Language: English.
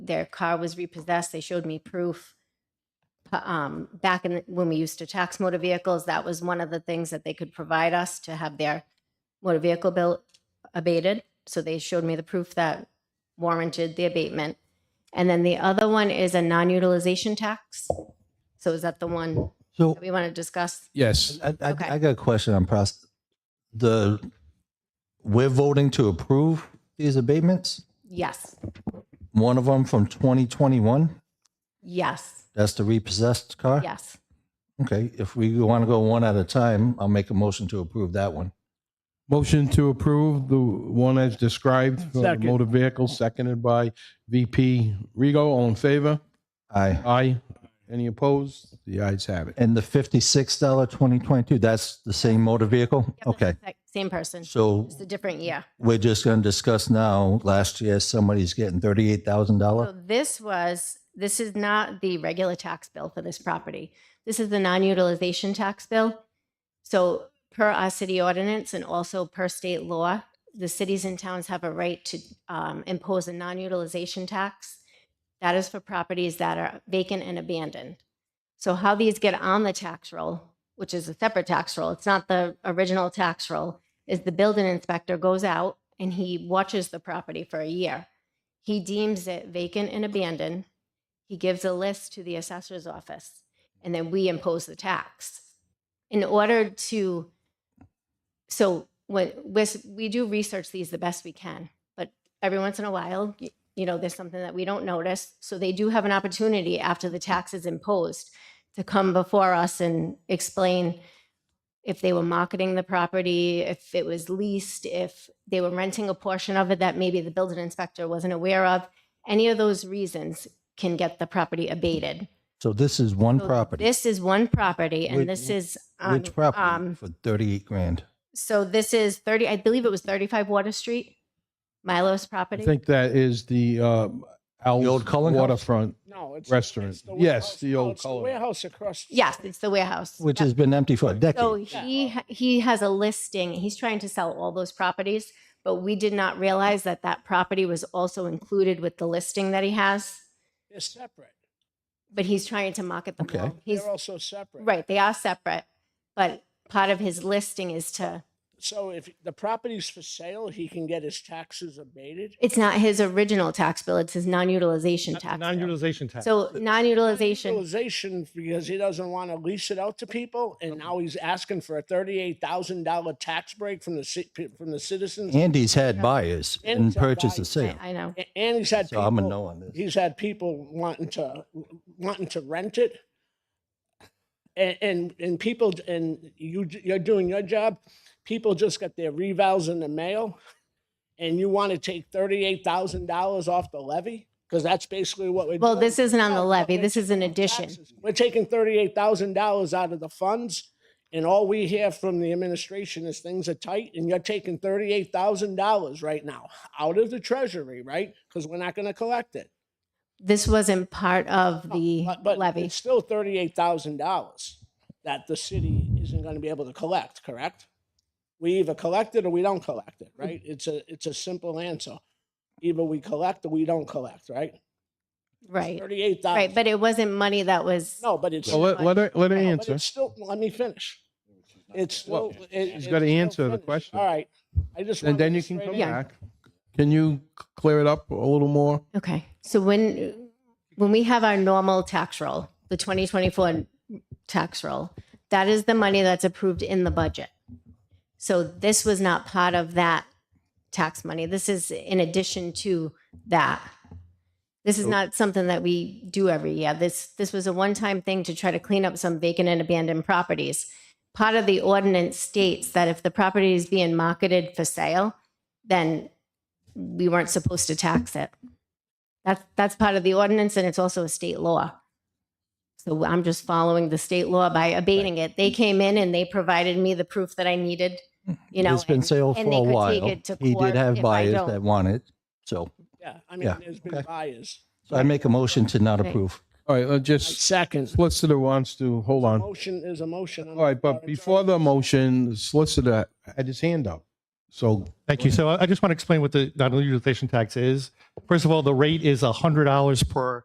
their car was repossessed. They showed me proof. Uh, Um, back in the, when we used to tax motor vehicles, that was one of the things that they could provide us to have their motor vehicle bill abated. So they showed me the proof that warranted the abatement. And then the other one is a non-utilization tax. So is that the one So that we want to discuss? Yes. I, I, Okay. I got a question on process. The we're voting to approve these abatements. Yes, One of them from 2021. yes, That's the repossessed car. yes. Okay. If we want to go one at a time, I'll make a motion to approve that one. Motion to approve the one as described for the Second. motor vehicle, seconded by VP Rego. All in favor? Aye. Aye. Any opposed? The ayes have it. And the fifty-six dollar 2022. That's the same motor vehicle. Yep, Okay. that's the Same person. So It's a different year. we're just going to discuss now. Last year, somebody's getting thirty-eight thousand So dollar. this was, this is not the regular tax bill for this property. This is the non-utilization tax bill. So per our city ordinance and also per state law, the cities and towns have a right to um, impose a non-utilization tax. That is for properties that are vacant and abandoned. So how these get on the tax roll, which is a separate tax roll, it's not the original tax roll, is the building inspector goes out and he watches the property for a year. He deems it vacant and abandoned. He gives a list to the assessor's office, and then we impose the tax. In order to, so when, with- we do research these the best we can, but every once in a while, y- you know, there's something that we don't notice. So they do have an opportunity after the tax is imposed to come before us and explain if they were marketing the property, if it was leased, if they were renting a portion of it that maybe the building inspector wasn't aware of, any of those reasons can get the property abated. So this is one So property. This is one property Which- and this is, on- Which property um, for thirty-eight grand? so this is 30, I believe it was 35 Water Street, Milo's I property. think that is the um, Al's The old Cullen House? waterfront. No, it's. Restaurant. it's the Yes, warehouse. the No, old it's the Cullen. Warehouse across. the Yes, street. it's the warehouse. Which Yep. has been empty for a decade. So he, ha- he has a listing, he's trying to sell all those properties, but we did not realize that that property was also included with the listing that he has. They're separate. But he's trying to market them Okay. all. He's, They're also separate. right, they are separate, but part of his listing is to, So if the property's for sale, he can get his taxes abated. it's not his original tax bill, it's his non-utilization tax bill. Non-utilization tax. So non-utilization, Utilization because he doesn't want to lease it out to people, and now he's asking for a thirty-eight thousand dollar tax break from the ci- from the citizens. Andy's had buyers and Andy's had purchased a buyers. sale. I know, A- And he's had So I'm a people- no on this. he's had people wanting to wanting to rent it and and, and people and you j- you're doing your job people just got their revals in the mail and you want to take $38000 off the levy because that's basically what we're well, doing. this isn't on No, the no, levy, we're this is an taking addition. taxes. we're taking $38000 out of the funds and all we hear from the administration is things are tight and you're taking $38000 right now out of the treasury right because we're not going to collect it This wasn't part of the Oh, but, but levy. It's still thirty-eight thousand dollars that the city isn't going to be able to collect. Correct? We either collect it or we don't collect it. Right? It's a it's a simple answer. Either we collect or we don't collect. Right? Right, Thirty-eight thousand. right, but it wasn't money that was, no, but it's So let, let her, let her no, but answer. It's still. Let me finish. It's Well, still. it- she's it's gotta still answer the finished. question. All right. I just. And wanted then to you can straight come answer. back. Can you c- clear it up a little more? okay. So when, when we have our normal tax roll, the 2024 tax roll, that is the money that's approved in the budget. So this was not part of that tax money. This is in addition to that. This is not something that we do every year. This, this was a one-time thing to try to clean up some vacant and abandoned properties. Part of the ordinance states that if the property is being marketed for sale, then we weren't supposed to tax it. That's, that's part of the ordinance and it's also a state law. So I'm just following the state law by abating it. They came in and they provided me the proof that I needed, you know. Mm-hmm. It's been and- sale and for they could a take while. it to He court did have if I buyers don't. that want it. So, Yeah. I mean, Yeah, there's been okay. buyers. so I make a motion to not Right. approve. All right, let's just, Second. solicitor wants to, hold on. Motion is a motion. All right, but before the motion, solicitor had his hand up. So Thank you. So I I just want to explain what the non-utilization tax is. First of all, the rate is $100 per